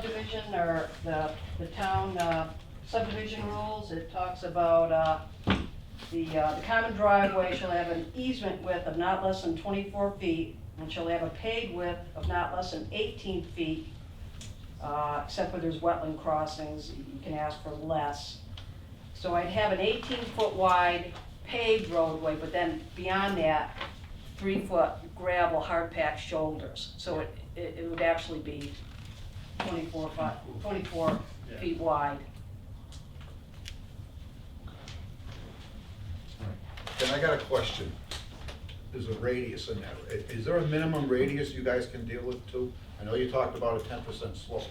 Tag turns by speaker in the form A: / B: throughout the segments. A: subdivision or the, the town uh, subdivision rules, it talks about, uh, the, uh, the common driveway shall have an easement width of not less than twenty-four feet and shall have a paved width of not less than eighteen feet, uh, except where there's wetland crossings, you can ask for less. So I'd have an eighteen-foot wide paved roadway, but then beyond that, three-foot gravel hard-packed shoulders. So it, it it would actually be 24 foot, 24 feet wide.
B: Then I got a question. There's a radius in there. I- Is there a minimum radius you guys can deal with too? I know you talked about a ten percent slope.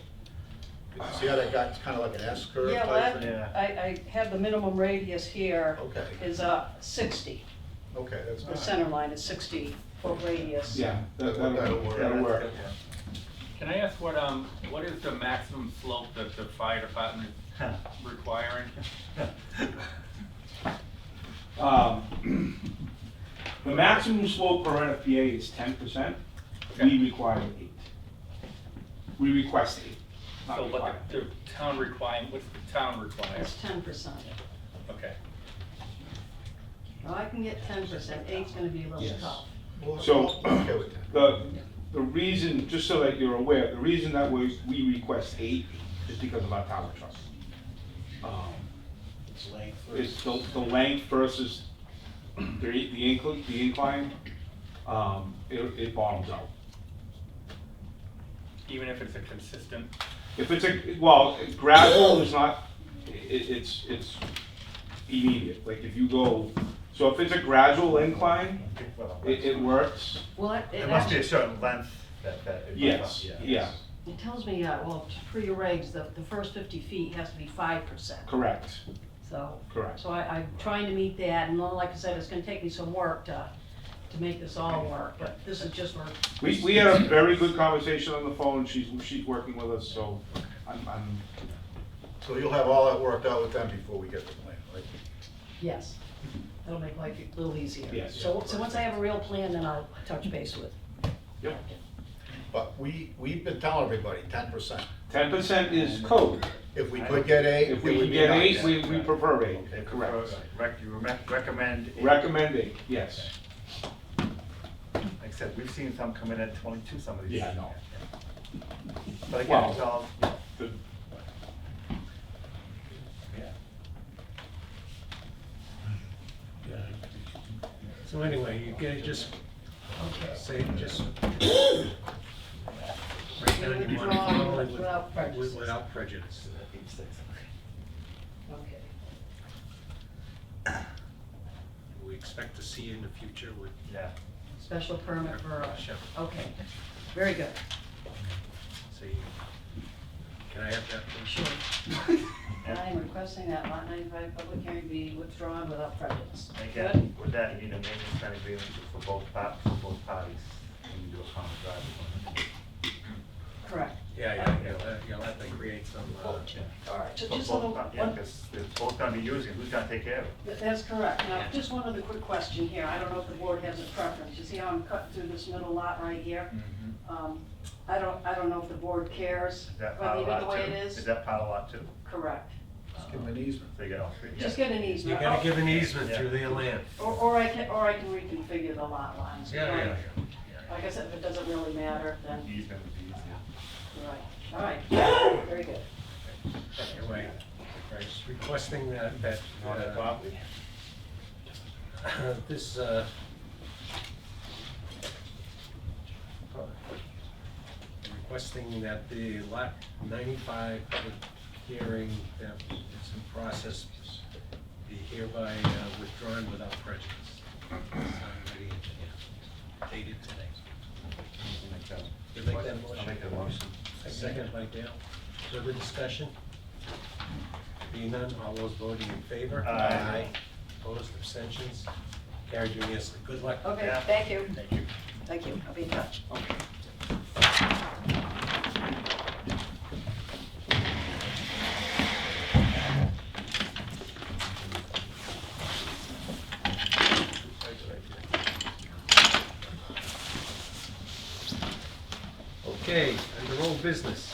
B: You See how that got, it's kind of like an S curve
A: Yeah,
B: type
A: well,
B: thing?
A: I, I have the minimum radius here
B: Okay.
A: is uh, 60.
B: Okay, that's
A: The
B: not,
A: center line is 60 foot radius.
C: Yeah, that- that'll,
B: That'll work.
C: that'll work.
D: Can I ask what, um, what is the maximum slope that the fire department is requiring?
C: Um, The maximum slope per NFPA is ten percent,
D: Okay.
C: we require eight. We request eight, not
D: So
C: require.
D: what the the town requiring, what's the town requiring?
A: That's 10%.
D: Okay.
A: Now, I can get 10%, eight's gonna be a little
C: Yes.
A: tough.
B: well,
C: So-
B: I'm okay with that.
C: The, the reason, just so that you're aware, the reason that we, we request eight is because of our tower trust. Um,
E: It's length
C: It's the, the length versus the, the incline, the incline, um, it, it bottoms out.
D: Even if it's a consistent,
C: If it's a, well, gravel is not, i- i it's, it's immediate, like if you go, so if it's a gradual incline, it, it works,
A: Well, it- it
E: There must be a
A: actually,
E: certain length that, that. it must-
C: yes, yeah,
A: it tells me, uh, well, for your regs, the, the first 50 feet has to be 5%,
C: correct,
A: so.
C: correct.
A: So I, I'm trying to meet that, and like I said, it's gonna take me some work to, to make this all work, but this is just where
C: We, we had a very good conversation on the phone, she's, she's working with us, so I'm, I'm,
B: So you'll have all that worked out with them before we get the plan, right?
A: Yes, that'll make life a little easier.
C: Yes.
A: So, so once I have a real plan, then I'll touch base with.
C: yep.
B: But we, we've been telling everybody ten percent.
C: Ten percent is code,
B: If we could get eight,
C: if
B: it
C: we
B: would
C: can
B: be
C: get
B: nice.
C: eight, we, we prefer eight,
E: It
C: correct.
E: corrects. Rec, you rec- recommend. it.
C: Recommend eight, yes,
E: Except we've seen some come in at twenty-two, some of these.
C: Yeah, I know.
E: But again,
C: Well-
E: it's all,
C: The-
E: yeah.
F: So anyway, you can just say, just write down your money
A: Withdraw
F: formally with-
A: without prejudice.
F: Without prejudice.
A: Okay.
F: We expect to see you in the future with
E: Yeah.
A: Special permit for, a-
F: Russia,
A: okay, very good,
F: so you, can I have that? please?
A: sure. I'm requesting that lot ninety-five public hearing be withdrawn without prejudice.
E: And
A: Good?
E: Again, with that, you need a maintenance plan agreement for both par, for both parties. when you do a common driveway.
A: Correct.
F: Yeah, yeah, you'll have- you'll have to create some, uh,
A: All right, so
E: For
A: just a
E: both
A: little,
E: par- Yeah,
A: one,
E: because they're both gonna be using, it. who's gonna take care of it?
A: That- That's correct. Now, just one other quick question here. I don't know if the board has a preference. You see how I'm cutting through this middle lot right here?
C: Mm-hmm.
A: Um, I don't, I don't know if the board cares,
E: Is Mm-hmm. that
A: but
E: part of
A: leave it
E: lot
A: the
E: two?
A: way it is.
E: that part of lot two?
A: Correct.
B: Just give them an easement.
E: So you got all three?
A: Just
E: Yeah.
A: get an
F: you
A: easement.
F: gotta
A: Oh,
F: give an easement through their land.
A: Or, or I can, or I can reconfigure the lot lines.
F: Yeah, yeah, yeah.
A: Like I said, if it doesn't really matter, then,
E: Easement would be easier.
A: right, all right, very good.
F: Anyway, right, just requesting that, that, uh, this, uh, requesting that the lot ninety-five public hearing that is in process be hereby uh, withdrawn without prejudice. Signed by the engineer. Dated today.
E: Make that-
F: You make that motion?
E: I'll make that motion.
F: Second by Dale. Further discussion? Being none, all those voting in favor?
E: Aye.
F: Opposed, abstentions? Carried unanimously. Good luck.
A: Okay,
E: Yeah.
A: thank you,
F: Thank you.
A: thank you. I'll be in touch.
C: okay.
F: Okay, under old business.